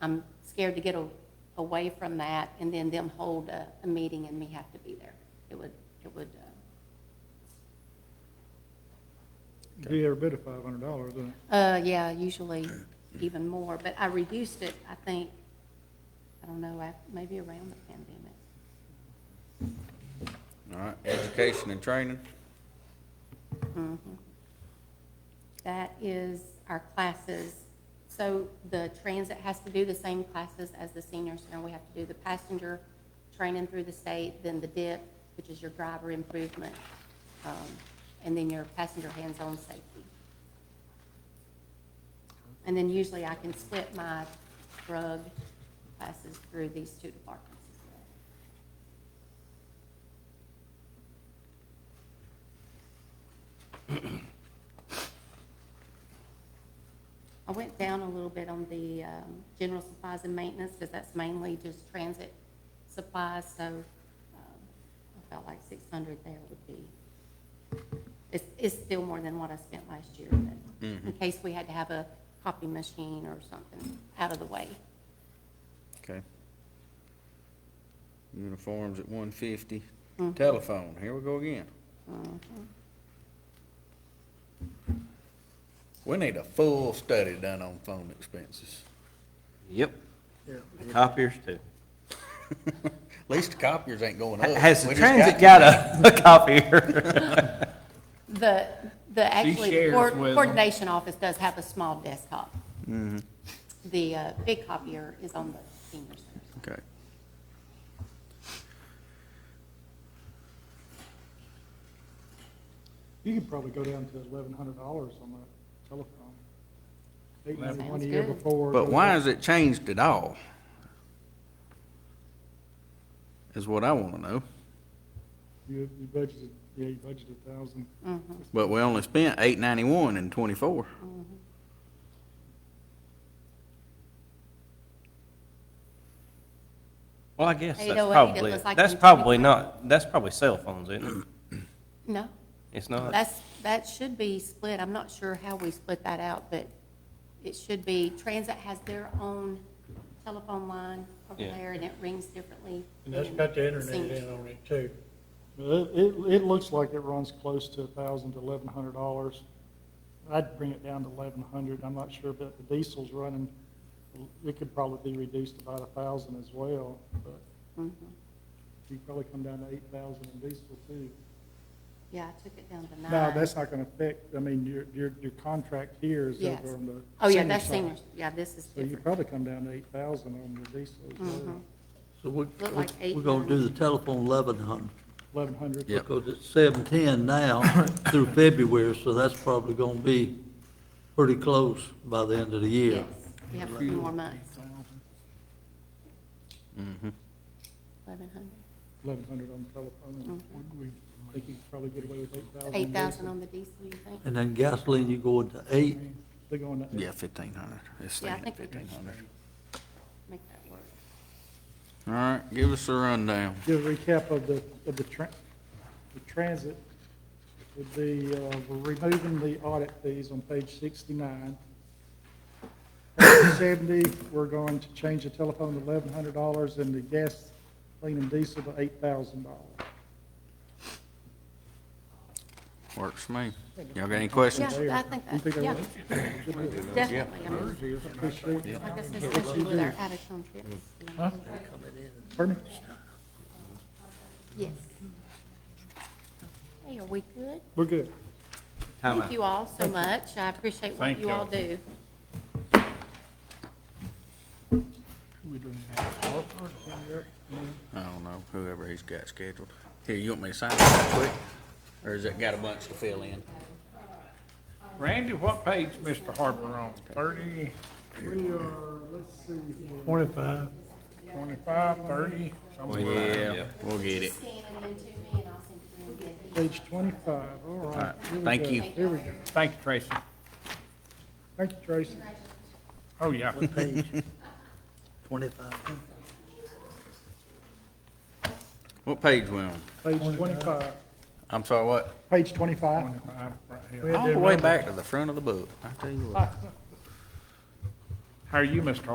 I'm scared to get a- away from that and then them hold a, a meeting and me have to be there. It would, it would, uh, Be every bit of five hundred dollars, then. uh, yeah, usually even more, but I reduced it, I think, I don't know, af- maybe around the pandemic. All right, education and training, Mm-hmm. That is our classes. So the transit has to do the same classes as the senior center. We have to do the passenger training through the state, then the DIP, which is your driver improvement, um, and then your passenger hands-on safety. And then usually I can split my drug classes through these two departments as well. I went down a little bit on the um, general supplies and maintenance, because that's mainly just transit supplies, so um, I felt like six hundred there would be, it's, it's still more than what I spent last year, but in case we had to have a copy machine or something out of the way. okay. Uniforms at one fifty, Mm. telephone, here we go again. Mm-hmm. We need a full study done on phone expenses, Yep. Copiers too. at least the copiers ain't going up. Has Oh, the We just got transit got a, a copier? The, the, actually, the shares coor- with 'em. coordination office does have a small desktop. The uh, big copier is on the senior center. Okay. You could probably go down to eleven hundred dollars on that telephone. Eight Sounds hundred one a year good. before. uh, But why has it changed at all? Is what I wanna know, You, you budgeted, yeah, you budgeted a thousand. Mm-hmm. but we only spent eight ninety-one and twenty-four. Well, I guess 808, that's it probably, looks like that's in probably not, that's probably cell phones, isn't it? No, It's not. That's, that should be split. I'm not sure how we split that out, but it should be, Transit has their own telephone line over Yeah. there, and it rings differently. And that's got the internet in on it too. It, it, it looks like it runs close to a thousand to eleven hundred dollars. I'd bring it down to eleven hundred. I'm not sure, but the diesel's running, it could probably be reduced about a thousand as well, but Mhm. you could probably come down to eight thousand in diesel too. Yeah, I took it down to nine. No, that's not gonna affect, I mean, your, your, your contract here is Yes. over on the. Oh, yeah, senior that's side. seniors. Yeah, this is So you different. probably come down to eight thousand on the diesel, uh, Mhm. So we, Look like eight we're gonna do the hundred. telephone eleven hundred, eleven hundred. Yep. because it's seven ten now through February, so that's probably gonna be pretty close by the end of the year. Yes, we have a few more months. Eleven hundred. Eleven hundred on the telephone, and we think you could probably get away with eight thousand. Mm-hmm. Eight thousand on the diesel, you think? And then gasoline, you go into eight, They're going to. Yeah, fifteen hundred, it's Yeah, I staying think at we can fifteen hundred. make that work. All right, give us a rundown. Give a recap of the, of the tran, the transit would be, uh, we're removing the audit fees on page sixty-nine. Page seventy, we're going to change the telephone to eleven hundred dollars and the gas, clean and diesel to eight thousand dollars. Works for me. Y'all got any questions? Yeah, I think that, yeah, definitely. I mean, Like I said, especially with our out-of-town trips. you know. Pardon me? Yes. Hey, are we good? We're good. Time Thank out. you all so much. I appreciate what Thank you all y'all. do. I don't know, whoever he's got scheduled. Here, you want me to sign that quick? Or has it got a bunch to fill in? Randy, what page Mr. Harper on? Thirty, We are, let's see, Twenty-five. twenty-five, thirty, something like that. Yeah, we'll get it. Scan it into me and I'll send it to you. page twenty-five, all All right. right, here we thank go. you. Here we go. Thank you, Tracy. Thank you, Tracy. Oh, yeah. page twenty-five. What page we on? Page twenty-five, I'm sorry, what? page twenty-five. Twenty-five, right here. We had All to the way remember- back to the front of the book, I tell you what. How are you, Mr. Harper?